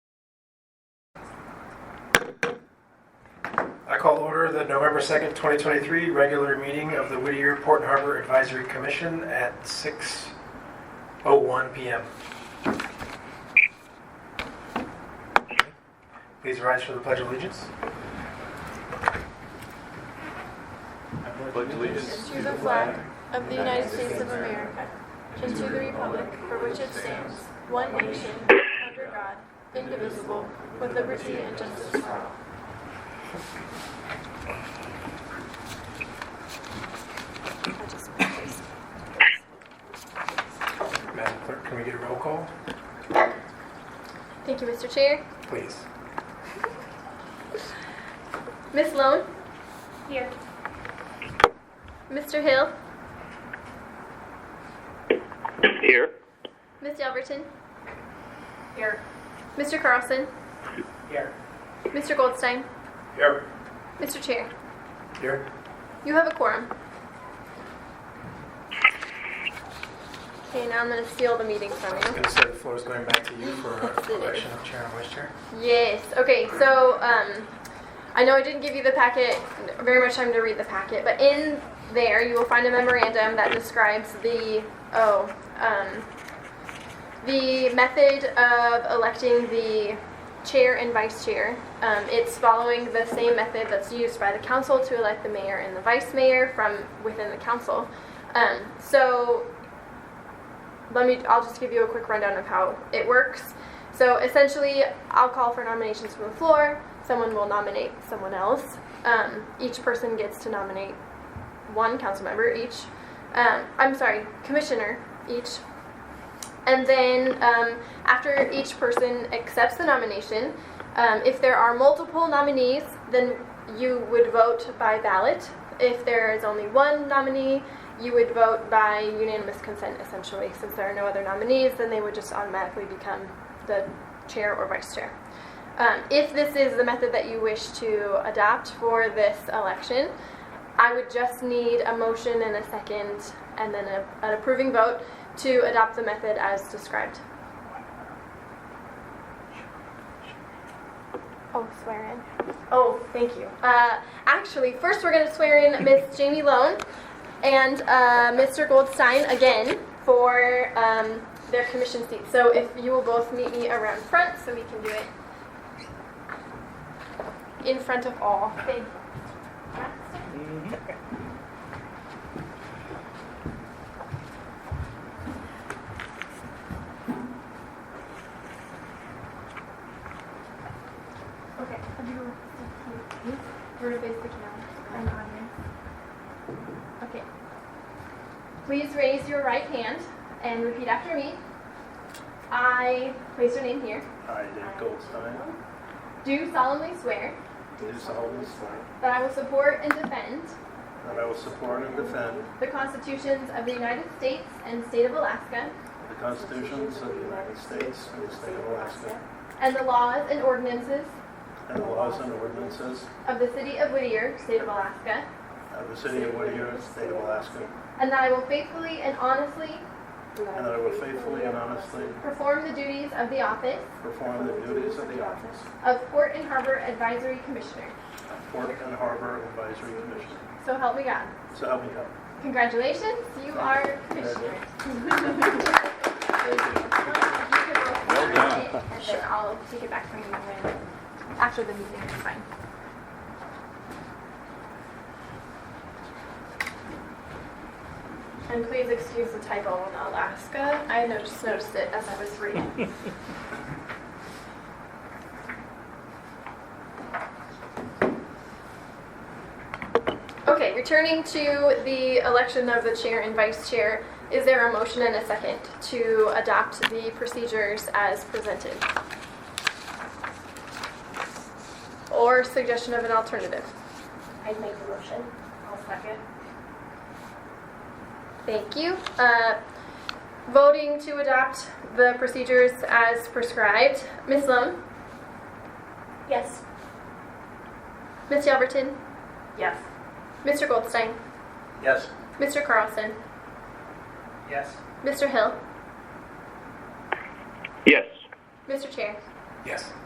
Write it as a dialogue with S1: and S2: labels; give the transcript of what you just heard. S1: I call to order the November 2nd, 2023 regular meeting of the Whittier Port Harbor Advisory Commission at 6:01 PM. Please rise for the Pledge of Allegiance.
S2: pledge allegiance
S3: To the flag of the United States of America and to the republic for which it stands, one nation, under God, indivisible, with liberty and justice for all.
S1: Madam Clerk, can we get a roll call,
S3: Thank you, Mr. Chair.
S1: please?
S3: Ms. Lone? Here. Mr. Hill?
S4: Here.
S3: Ms. Yelverton? Here. Mr. Carlson?
S1: Here.
S3: Mr. Goldstein?
S1: Here.
S3: Mr. Chair,
S1: Here.
S3: you have a quorum. Okay, now I'm going to steal the meeting from you.
S1: I'm going to say the floor is going back to you for
S3: Yes, it is.
S1: election of chair and vice chair.
S3: Yes. Okay. So um, I know I didn't give you the packet very much time to read the packet, but in there you will find a memorandum that describes the oh um, the method of electing the chair and vice chair. Um, it's following the same method that's used by the council to elect the mayor and the vice mayor from within the council. Um, so let me i'll just give you a quick rundown of how it works so essentially i'll call for nominations from the floor someone will nominate someone else um, each person gets to nominate one council member each um, i'm sorry commissioner each and then um, after each person accepts the nomination um, if there are multiple nominees then you would vote by ballot if there is only one nominee you would vote by unanimous consent essentially. Since there are no other nominees, then they would just automatically become the chair or vice chair. Um, if this is the method that you wish to adopt for this election, I would just need a motion and a second and then a, an approving vote to adopt the method as described. Oh, swear in. Oh, thank you. Uh, actually, first we're going to swear in Miss Jamie Lone and uh, Mr. Goldstein again for um, their commission seats. So if you will both meet me around front so we can do it in front of all. Thank you. Okay, we're gonna face the camera. Okay. Please raise your right hand and repeat after me. I place your name here.
S2: I, Dave Goldstein,
S3: Do solemnly swear
S2: do solemnly swear
S3: that I will support and defend
S2: that I will support and defend
S3: the constitutions of the United States and state of Alaska
S2: the constitutions of the United States and the state of Alaska
S3: and the laws and ordinances
S2: and the laws and ordinances
S3: of the city of Whittier, state of Alaska,
S2: of the city of Whittier, state of Alaska,
S3: and that I will faithfully and honestly
S2: and that I will faithfully and honestly
S3: perform the duties of the office
S2: perform the duties of the office
S3: of Port and Harbor Advisory Commissioner.
S2: of Port and Harbor Advisory Commission.
S3: So help me God.
S2: So help me God.
S3: Congratulations, you are commissioner. Well
S4: done.
S3: And then I'll take it back from you when, after the meeting, it's fine. And please excuse the typo on Alaska, I noticed, noticed it as I was reading. Okay, returning to the election of the chair and vice chair, is there a motion and a second to adopt the procedures as presented? Or suggestion of an alternative?
S5: I'd make the motion. I'll second.
S3: Thank you. Uh, Voting to adopt the procedures as prescribed, Ms. Lum,
S5: Yes.
S3: Ms. Yelverton,
S5: Yes.
S3: Mr. Goldstein,
S2: Yes.
S3: Mr. Carlson,
S2: Yes.
S3: Mr. Hill,
S4: Yes.
S3: Mr. Chair.
S1: Yes.